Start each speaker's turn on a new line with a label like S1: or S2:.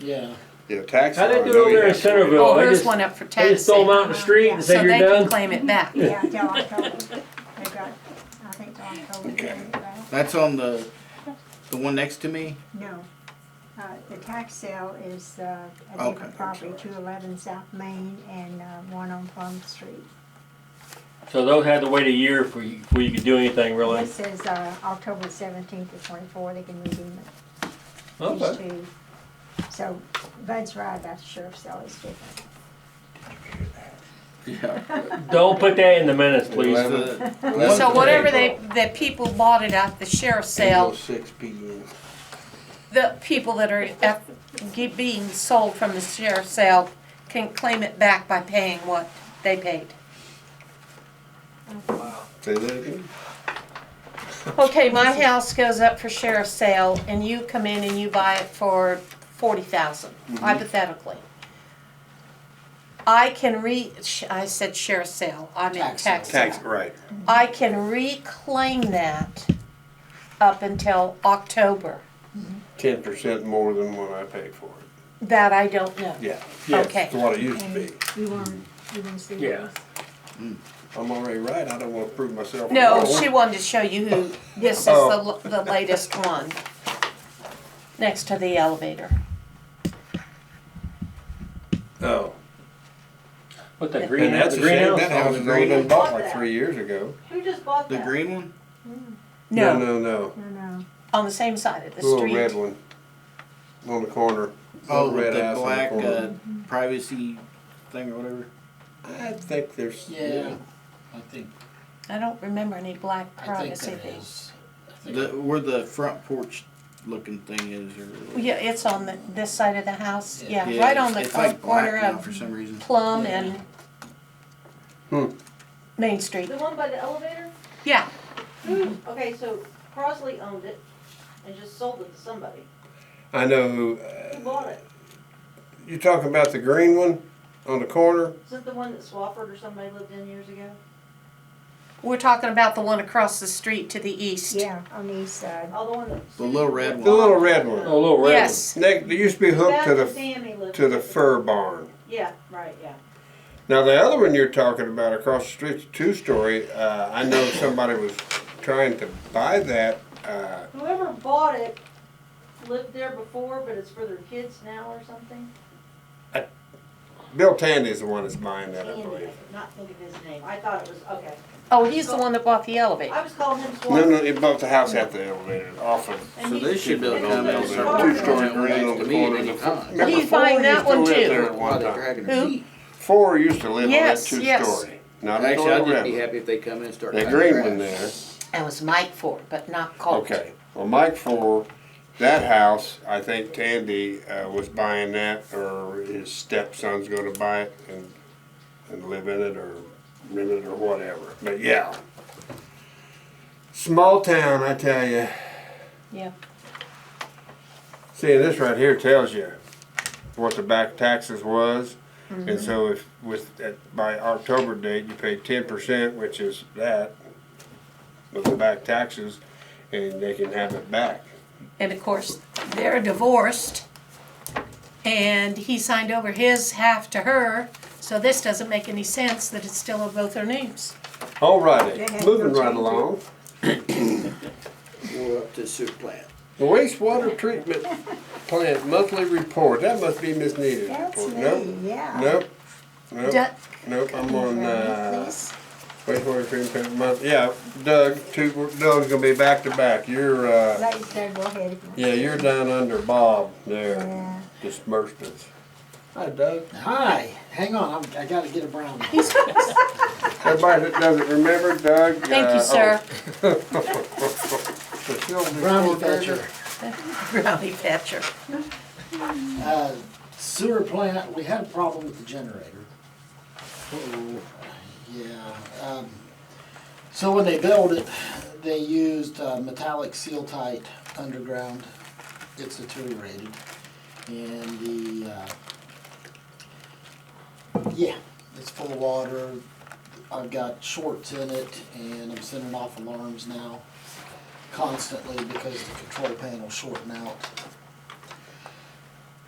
S1: Yeah.
S2: You know, taxes.
S3: How they
S2: I
S3: do
S2: know
S3: over
S2: you
S3: there in
S2: have to wait.
S3: Centerville?
S4: Oh,
S3: They
S4: here's
S3: just,
S4: one up for
S3: they
S4: tax.
S3: just throw them out in the street and
S4: So
S3: say
S4: they
S3: you're
S4: can
S3: done.
S4: claim it back.
S5: Yeah, till October. They've got, I think till October.
S2: Okay.
S1: That's on the, the one next to me?
S5: No. Uh, The tax sale is uh,
S1: Okay,
S5: a
S1: I'm
S5: different property,
S1: sorry.
S5: two eleven South Main and uh, one on Plum Street.
S3: So those had to wait a year for you, before you could do anything really.
S5: This is uh, October seventeenth to twenty-four, they can redeem it, these
S3: Okay.
S5: two. So Bud's right about the sheriff's sale is different.
S1: Yeah.
S3: Don't put that in the minutes, please.
S2: Eleven.
S1: The-
S2: Eleven
S4: So
S2: to
S4: whatever they,
S2: April.
S4: the people bought it at the sheriff's
S2: April
S4: sale,
S2: Six P M.
S4: the people that are at, ge- being sold from the sheriff's sale can claim it back by paying what they paid.
S2: Say that again.
S4: Okay, my house goes up for sheriff's sale and you come in and you buy it for forty thousand, hypothetically. I can re, sh- I said sheriff's sale, I meant
S1: Tax
S4: tax sale.
S2: Tax, right.
S4: I can reclaim that up until October.
S2: Ten percent more than what I paid for it.
S4: That I don't know.
S2: Yeah.
S3: Yes.
S4: Okay.
S2: To what it used to
S5: And
S2: be.
S5: you want, you want to see
S3: Yeah.
S5: this?
S2: I'm already right. I don't wanna prove myself.
S4: No,
S2: wrong.
S4: she wanted to show you who, this is the,
S2: Oh.
S4: the latest one. Next to the elevator.
S2: Oh.
S3: What the green,
S2: And that's
S3: the
S2: a shame.
S3: greenhouse?
S2: That house was only been bought like three years ago.
S4: Who just bought
S1: The green one?
S4: No,
S2: No, no,
S5: No, no,
S4: on the same side of the
S2: no. Little red
S4: street.
S2: one. On the corner.
S1: Oh,
S2: Little red
S1: with the
S2: house on
S1: black uh,
S2: corner.
S1: privacy thing or whatever? uh,
S2: I think there's.
S6: I think,
S4: I don't remember any black privacy things.
S6: is.
S1: The, where the front porch looking thing is or.
S4: Yeah, it's on the, this side of the house,
S6: Yeah.
S4: yeah, right on
S1: it's-
S4: the
S1: It's like
S4: corner
S1: black now
S4: of
S1: for some reason.
S4: Plum
S6: Yeah.
S4: and
S2: Hmm.
S4: Main Street.
S7: The one by the elevator? Hmm,
S4: Yeah,
S7: Okay, so Crosley owned it and just sold it to somebody.
S2: I know.
S7: Who
S2: Uh,
S7: bought it?
S2: you talking about the green one on the corner?
S7: Is it the one that Swafford or somebody lived in years ago?
S4: we're talking about the one across the street to the east.
S5: yeah, on the east side.
S7: Oh, the one that.
S1: The little red
S2: The little red one.
S3: Oh, a little red. one.
S4: Yes,
S2: Next, there used to be hooked to
S7: Beth and
S2: the
S7: Sammy lived.
S2: to the
S7: in it.
S2: fur barn.
S7: Yeah, right, yeah.
S2: Now the other one you're talking about across the street's two story. Uh, I know somebody was trying to buy that. Uh,
S7: Whoever bought it lived there before, but it's for their kids now or something.
S2: Bill Tandy's the one that's buying that, I
S7: Andy, I
S2: believe.
S7: could not think of his name. I thought it was, okay.
S4: oh, he's the one that bought the elevator.
S7: I was calling him Swafford.
S2: No, no, it bought the house at the elevator off of.
S7: and
S1: So
S7: he-
S1: they should be able to
S7: and
S1: come
S7: he
S1: in and
S7: lived
S1: start
S7: in
S2: Two
S1: working
S7: the
S2: story
S7: barn.
S1: on that
S2: green on
S1: next to
S2: the
S1: me at
S2: corner of
S1: any
S2: the-
S1: time.
S2: Remember
S4: He's
S2: four
S4: buying
S2: used
S4: that
S2: to
S4: one
S2: live
S4: too.
S2: there at one
S1: Why they
S2: time.
S1: dragging
S4: Who?
S1: their feet?
S2: Four used to live
S4: Yes,
S2: on that two
S4: yes.
S2: story. Not the
S1: Actually, I'd
S2: little
S1: just
S2: red
S1: be
S2: one.
S1: happy if they come in and start.
S2: That
S1: cutting
S2: green
S1: grass.
S2: one there.
S4: That was Mike Ford, but not Colt.
S2: Okay, well, Mike for that house, I think Tandy, uh, was buying that, or his stepson's gonna buy it and, and live in it, or rent it, or whatever, but yeah. Small town, I tell you,
S4: Yeah.
S2: see, this right here tells you what the back taxes was. And so if, with, at- by October date, you pay ten percent, which is that, with the back taxes, and they can have it back.
S4: And of course, they're divorced. And he signed over his half to her, so this doesn't make any sense that it's still in both their names.
S2: All
S5: They
S2: righty,
S5: had
S2: moving
S5: no
S2: right
S5: change.
S2: along.
S1: We're up to the soup plant.
S2: The wastewater treatment plant monthly report, that must be Miss Nita's
S5: That's
S2: report.
S5: me,
S2: Nope,
S5: yeah.
S2: nope, nope,
S4: Doug,
S2: nope, I'm on, uh,
S5: Please.
S2: wastewater treatment month, yeah, Doug, two, Doug's gonna be back to back, you're, uh,
S5: Ladies, they go ahead. if you want.
S2: yeah, you're down under Bob there,
S5: Yeah.
S2: dispersed us. Hi Doug.
S6: Hi, hang on, I'm, I gotta get a brown one.
S4: he's,
S2: Everybody that doesn't remember Doug. uh, oh,
S4: thank you, sir.
S6: Brownie Thatcher.
S4: Brownie Thatcher.
S6: Uh, Sewer plant, we had a problem with the generator. Uh-oh, yeah. um, So when they built it, they used uh, metallic seal tight underground. It's deteriorated. And the, uh, yeah, it's full of water. I've got shorts in it and I'm sending off alarms now constantly because the control panel's shorting out.